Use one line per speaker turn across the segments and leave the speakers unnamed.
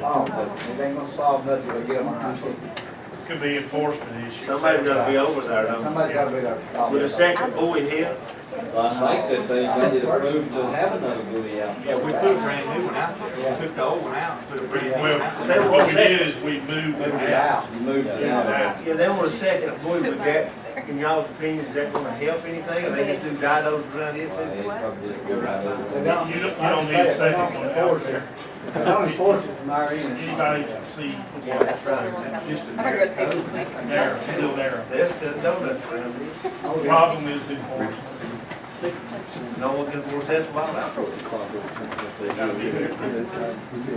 solved, but it ain't gonna solve nothing till we get them on our ticket.
Could be enforcement issues.
Somebody's gotta be over there, though.
Somebody gotta be there.
With a second buoy here,
Well, I think that they got it approved to have another buoy out
Yeah,
there.
we put a brand new one out there, we took the old one out and put a brand new one out there.
Well, what we did is we moved
Move
it
it
out.
out.
You moved it out.
Now,
yeah, they want a second buoy with that. In y'all's opinion, is that gonna help anything, or they just do didos around here
Well,
too?
it probably just go right
They
over.
don't,
You don't- you
like I
don't need a
said, they
second
don't
one out
enforce it.
there.
They don't enforce it from our end.
Anybody can see
Yeah, that's
I
right.
heard about people sleeping.
there, still there.
There's the donuts around here.
Oh, yeah.
Problem is enforcement.
No one can force that wild out.
Gotta be there.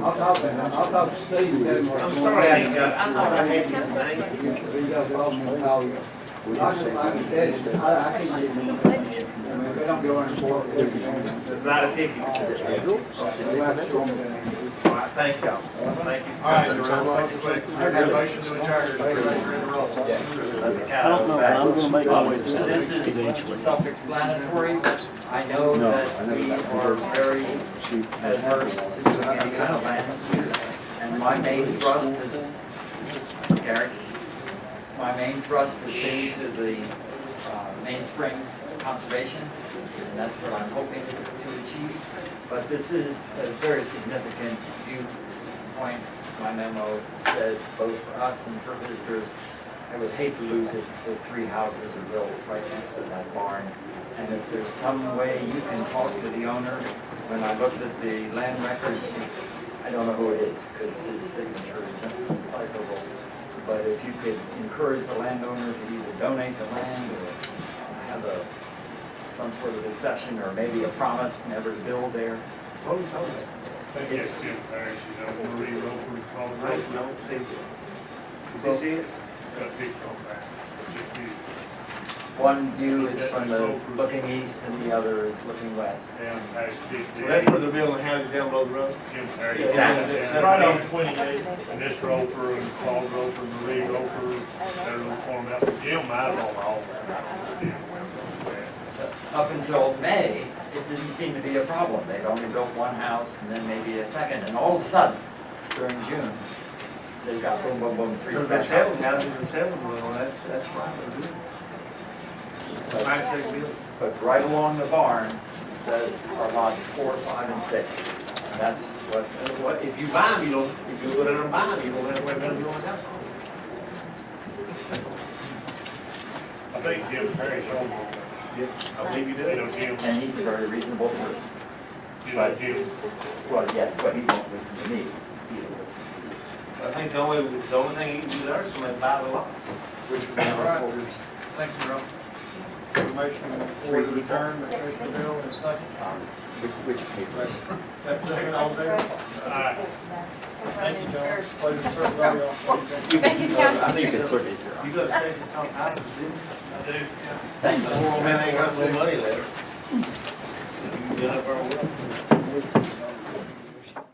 I'll talk to, I'll talk to Steve. and tell him what-
I'm sorry, I ain't got, I thought I had your name.
We got the old man, how you- I just, like I said, I, I can't get them. I mean, if they don't go in for it. they don't.
It's not a ticket.
They might show them that.
All right, thank y'all. Thank you. All right,
Motion to adjourn.
I don't know, I'm gonna make my way to
So this is self-explanatory. I know that we are very adverse to any kind of land. And my main thrust is, Gary, my main thrust is being to the uh, mainspring conservation. And that's what I'm hoping to achieve. But this is a very significant viewpoint. My memo says both for us and for visitors, I would hate to lose it, the three houses are built right next to that barn. And if there's some way you can talk to the owner, when I looked at the land records, I don't know who it is, because his signature is indecipherable. But if you could encourage the landowner to either donate the land or have a, some sort of exception, or maybe a promise never to build there.
They get two parents, you know, Marie Roper, Paul Roper,
No, no, see. Is this it?
it's got a big compact. It's just huge.
One view is from the looking east and the other is looking west.
Down past Big
Well, That's where
Daddy,
the building houses down below the road.
Jim Perry.
Exactly.
Down Right on twenty-eight, and this Roper and Paul Roper, Marie Roper, their little farmhouse, Jim might own all that.
Up until May, it didn't seem to be a problem. They'd only built one house and then maybe a second, and all of a sudden, during June, they got boom, boom, boom, three
Because they're
spec
selling
houses.
houses, they're selling well, that's, that's why they're doing it. Nice big building.
But right along the barn, those are lots four, five, and six. And that's what,
And what, if you buy them, you don't, if you go down and buy them, you don't have to worry about your own house.
I think Jim Perry's owned it.
I believe you
You
do.
know, Jim,
and he's a very reasonable person.
you know, Jim,
Well, yes, but he won't listen to me. He'll listen to you.
I think the only, the only thing you can do there is somebody buy the lot.
Which we never
Right.
force.
Thank you, Rob. Motion for adjourn, Mr. Bill, and second. That's second, all there.
I,
Thank you, John. Pleasure to serve everybody else.
Thank you, John.
I think it's surface here.
You go to station, talk houses, didn't
I do.
Thank you.
you? Man, ain't got no money left. You can get up there.